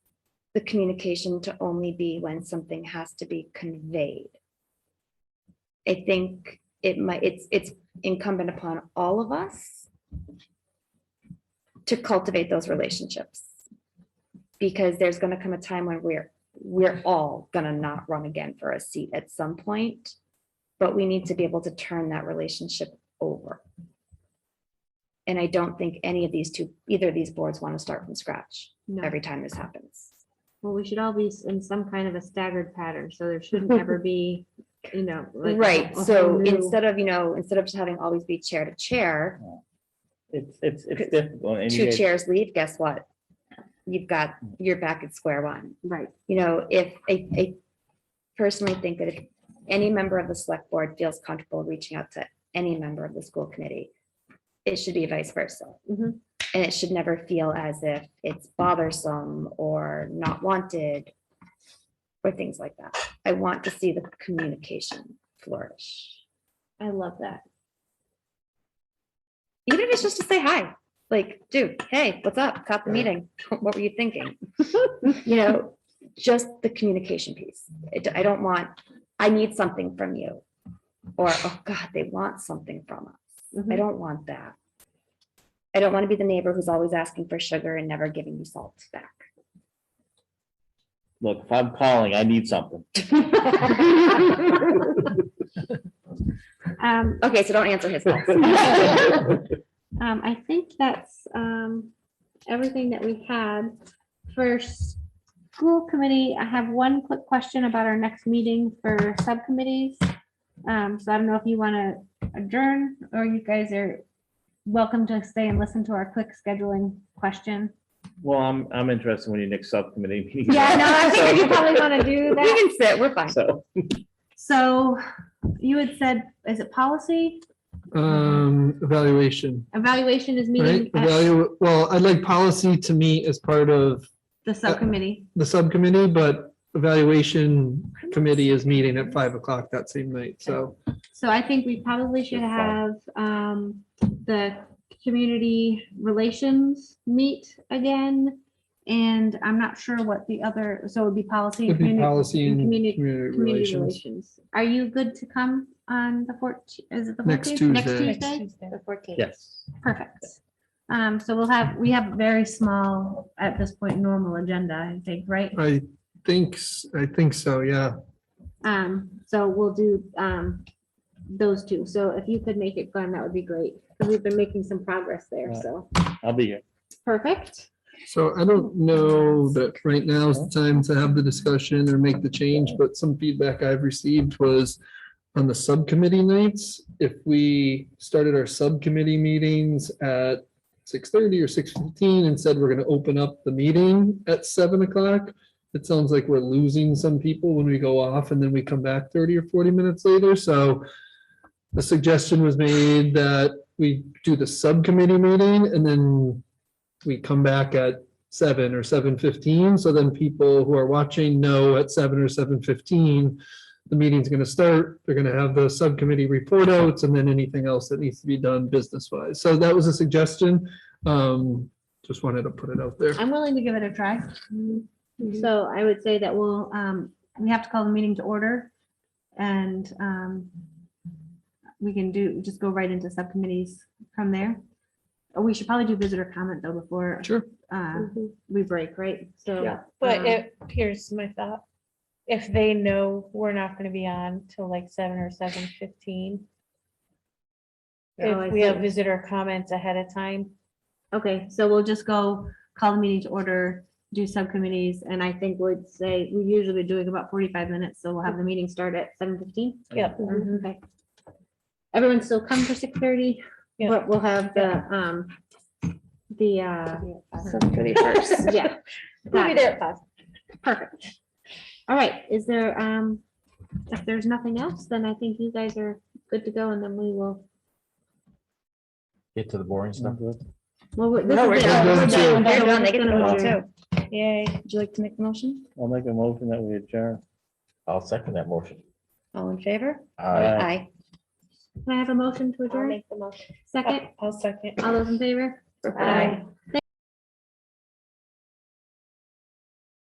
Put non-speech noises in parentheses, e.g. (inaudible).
the communication to only be when something has to be conveyed. I think it might, it's, it's incumbent upon all of us to cultivate those relationships. Because there's gonna come a time when we're, we're all gonna not run again for a seat at some point. But we need to be able to turn that relationship over. And I don't think any of these two, either of these boards want to start from scratch No. every time this happens. Well, we should all be s- in some kind of a staggered pattern, so there (laughs) shouldn't ever be, you know. like a- a Right, oh, whole so new- instead of, you know, instead of just having always be chair to chair, It's, it's, Cause it's difficult. and you two guys- chairs leave, guess what? You've got, you're back at square one. Right, You know, if, I, I personally think that if any member of the select board feels comfortable reaching out to any member of the school committee, it should be vice versa. Mm-hmm. Mhm. And it should never feel as if it's bothersome or not wanted or things like that. I want to see the communication flourish. I love that. even if it's just to say hi, like, dude, hey, what's up? Caught the meeting. (laughs) What were you thinking? You know, just the communication piece. It- I don't want, I need something from you. Or, oh God, they want something from us. Mm-hmm. I Mhm. don't want that. I don't want to be the neighbor who's always asking for sugar and never giving you salt (laughs) back. Look, if I'm calling, I (laughs) need something. Um, Okay, so don't answer (laughs) his (laughs) calls. um, I think that's, um, everything that we had for school committee. I have one quick question about our next meeting for subcommittees. Um, so I don't know if you want to adjourn or you guys are welcome to stay and listen to our quick scheduling question. Well, I'm, I'm interested when your next subcommittee. meeting is. Yeah, no, I (laughs) think you probably want to do We that. can sit, we're fine. So, So you had said, is it policy? Um, evaluation, Evaluation is right? Mm-hmm. meeting at Evalu, well, I'd like policy to meet as part of the subcommittee. the subcommittee, but evaluation committee is meeting at five o'clock that same night, so. So I think we probably should Good have thought. um the community relations meet again. And I'm not sure what the other, so it would be policy. and It'd be communi- policy and communi- community Community relations. relations. Are you good to come on the fourteen, is it the Next fourteenth? Tuesday. Next Tuesday? yes. Perfect. Um, so we'll have, we have a very small, at this point, normal agenda, I think, right? I think, s- I think so, yeah. Um, so we'll do, um, those two. So if you could make it, Glenn, that would be great. 'cause We've been making some progress there, Right. so. I'll be here. Perfect. So I don't know that right now is the time to have the discussion or make the change, but some feedback I've received was on the subcommittee nights, if we started our subcommittee meetings at six thirty or six fifteen and said we're gonna open up the meeting at seven o'clock, it sounds like we're losing some people when we go off and then we come back thirty or forty minutes later, so the suggestion was made that we do the subcommittee meeting and then we come back at seven or seven fifteen, so then people who are watching know at seven or seven fifteen, the meeting's gonna start, they're gonna have the subcommittee report outs and then anything else that needs to be done business wise. So that was a suggestion. Um, just wanted to put it out there. I'm willing to give it a try. So I would say that we'll, um, we have to call the meeting to order and, um, we can do, just go right into subcommittees from there. Oh, We should probably do visitor comment though before, Sure. Mm-hmm. uh, we break, right? So. Yeah. But um, it, here's my thought, if they know we're not gonna be on till like seven or seven fifteen. Oh, I If we have see. visitor comments ahead of time, Okay, so we'll just go call the meeting to order, do subcommittees, and I think we'd say, we usually be doing about forty-five minutes, so we'll have the meeting start at seven fifteen. Yep. Okay. Everyone still come for six thirty, Yeah. but we'll have the, um, the, uh, yeah. (laughs) we'll be Got there it. at five. Perfect. All right, is there, um, if there's nothing else, then I think you guys are good to go, and then we will, Get to the boring stuff. well, we- this No, we're is it. done. We're We're done. done. They're done, they get to We're go done. home too. Mm-hmm. Yay. Would you like to make the motion? I'll make a motion that we adjourn. I'll second that motion. All in favor? Aye. Aye. Can I have a motion to I'll adjourn? make the motion. Second, I'll second. all those in favor? Aye.